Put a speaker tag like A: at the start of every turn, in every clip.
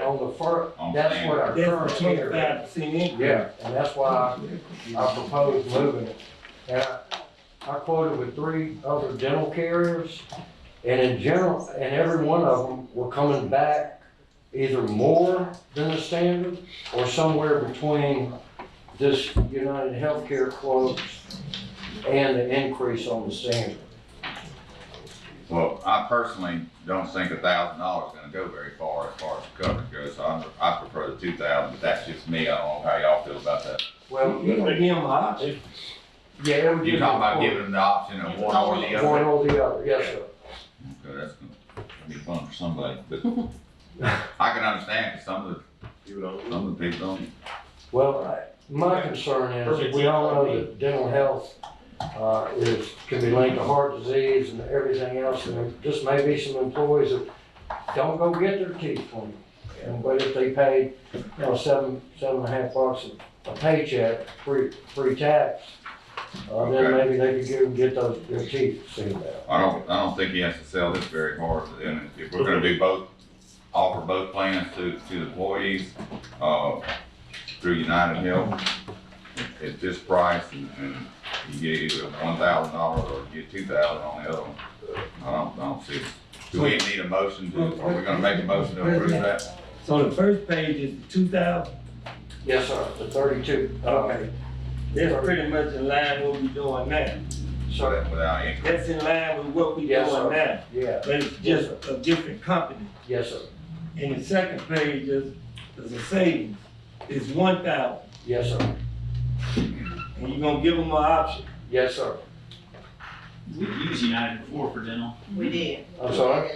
A: on the fir,
B: On
A: that's what our current
C: That's
A: tier is.
C: twenty-five percent increase.
A: Yeah, and that's why I I proposed moving it. And I- I quoted with three other dental carriers, and in general, and every one of them were coming back either more than the standard, or somewhere between this United Healthcare quote and the increase on the standard.
B: Well, I personally don't think a thousand dollars is gonna go very far as far as coverage goes, so I, I prefer the two thousand, but that's just me, I don't know how y'all feel about that.
A: Well,
C: You don't give them option.
A: yeah, it would be.
B: You're talking about giving them the option of one or the
A: One
B: other?
A: or the other, yes, sir.
B: Okay, that's gonna be fun for somebody, but I can understand, 'cause some of
D: You know,
B: the, some of the people don't.
A: Well, I- my concern is, we all know that dental health, uh, is, can be linked to heart disease and everything else, and there just may be some employees that don't go get their teeth cleaned. And but if they paid, you know, seven, seven and a half bucks a a paycheck, free, free tax, uh, then
B: Okay.
A: maybe they could go and get those, their teeth seen about.
B: I don't, I don't think he has to sell this very hard, and if we're gonna do both, offer both plans to, to the employees, uh, through United Health, at this price, and, and you get either one thousand dollars or you get two thousand on the other one. I don't, I don't see, it. do we need a motion to, are we gonna make a motion to approve that?
C: So the first page is two thousand,
A: Yes, sir, the thirty-two.
C: Okay. that's pretty much in line with what we doing now.
A: So,
B: Without any,
C: That's in line with what we
A: Yes, sir.
C: doing now,
A: yeah,
C: but it's just a different company.
A: yes, sir,
C: And the second page is, is a savings, it's one thousand,
A: yes, sir,
C: and you gonna give them an option.
A: yes, sir.
E: We used United before for dental.
F: We did.
A: I'm sorry?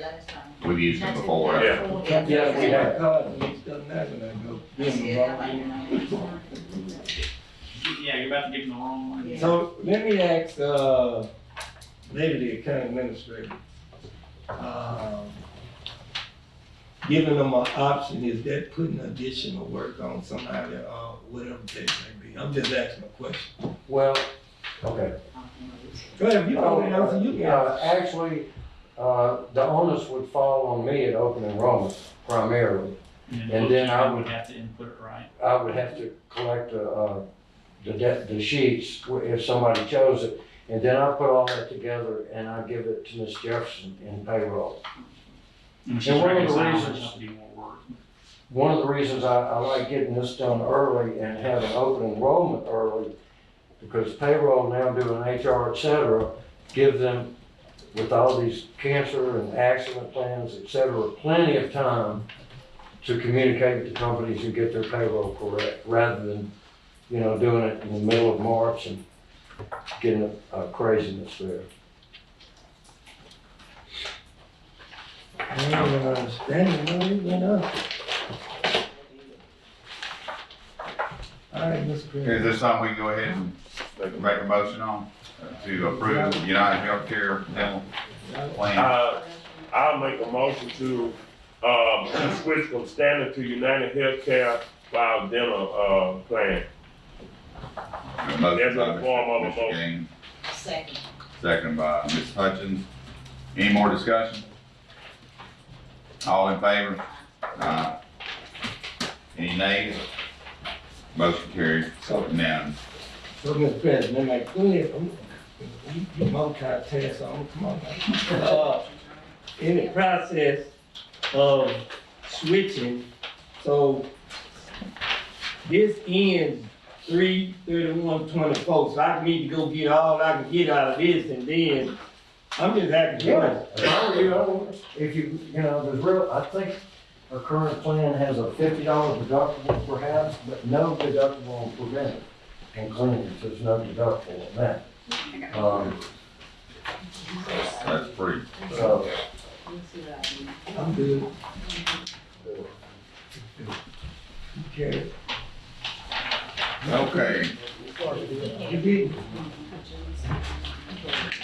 B: we've used them before, right?
A: Yeah. Yeah, we have.
C: My card mixed up now when I go give 'em the wrong one.
E: Yeah, you're about to give them the wrong one.
C: So let me ask, uh, Lady the County Administrator. um, Giving them an option, is that putting additional work on somebody, uh, whatever that may be? I'm just asking a question.
A: Well, okay.
C: Go ahead, if you
A: Oh,
C: want to answer, you can.
A: uh, Actually, uh, the onus would fall on me at open enrollment primarily. And then I
E: we
A: would-
E: have to input it right.
A: I would have to collect the, uh, the de- the sheets if somebody chose it. And then I put all that together and I give it to Ms. Jefferson in payroll.
E: And
A: And
E: she's
A: one of the
E: reconciling
A: reasons-
E: herself to do more work.
A: One of the reasons I, I like getting this done early and having open enrollment early, because payroll now doing HR, et cetera, give them, with all these cancer and accident plans, et cetera, plenty of time to communicate with the companies and get their payroll correct, rather than, you know, doing it in the middle of March and getting a a craziness there.
C: I don't even understand why it went up. All right, Mr. Green.
B: Is this something we can go ahead and make a motion on, uh, to approve United Healthcare dental plan?
D: uh, I'll make a motion to, um, switch from standard to United Healthcare for our dental, uh, plan.
B: A motion by
D: There's a form of a
B: Mr.
D: motion.
B: Gaines.
F: Second.
B: Second by Ms. Hutchins. Any more discussion? All in favor? Aye. Any nays? Motion carries unanimous.
C: So, Mr. President, like, go ahead, I'm- you, you multitask, so I'm, come on now. Uh, In the process of switching, so this ends three thirty-one twenty-four, so I need to go get all I can get out of this, and then I'm just happy to run.
A: If I were you, I would- if you, you know, there's real, I think our current plan has a fifty dollar deductible perhaps, but no deductible on preventive and cleaning, there's no deductible on that. Um,
B: That's pretty,
A: so,
C: I'm good. Okay.
B: okay.
C: You did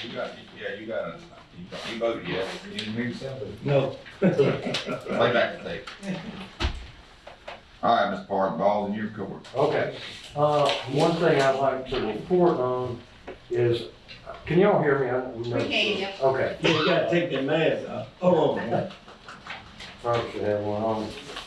B: You got, yeah, you got, a- you voted yes. You didn't hear yourself?
C: No.
B: Play back the tape. All right, Ms. Park, ball's in your court.
A: okay. Uh, one thing I'd like to report on is, can y'all hear me? I-
F: We can, yep.
A: Okay,
C: You gotta take that mask off. Hold on.
A: probably should have one on.